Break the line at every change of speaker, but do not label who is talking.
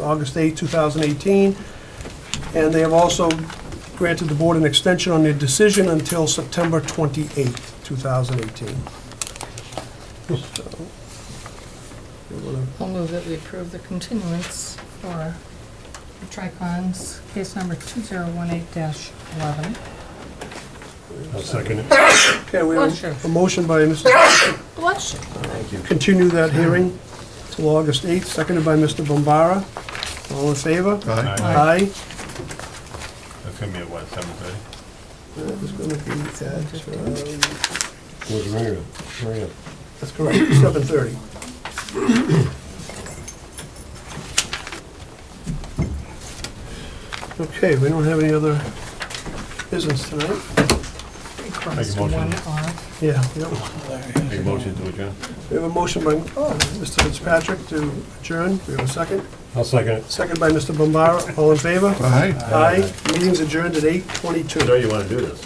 August 8, 2018. And they have also granted the board an extension on their decision until September 28, 2018. So, you wanna-
I'll move that we approve the continuance for Tricon's case number 2018-11.
I'll second it.
Okay, we have
Motion.
a- a motion by Mr.
Bless you.
continue that hearing till August 8th, seconded by Mr. Bombara. All in favor?
Aye.
Aye.
That's gonna be at what, seven thirty?
That is gonna be at, um,
Where's Maria? Maria.
that's correct, 7:30. Okay, we don't have any other business tonight?
Request
motion.
one off.
Yeah, yep.
Make a motion to adjourn.
We have a motion by uh, Mr. Fitzpatrick to adjourn. We have a second.
I'll second it.
Second by Mr. Bombara. All in favor?
Aye.
Aye. Meeting's adjourned at 8:22.
you wanna do this.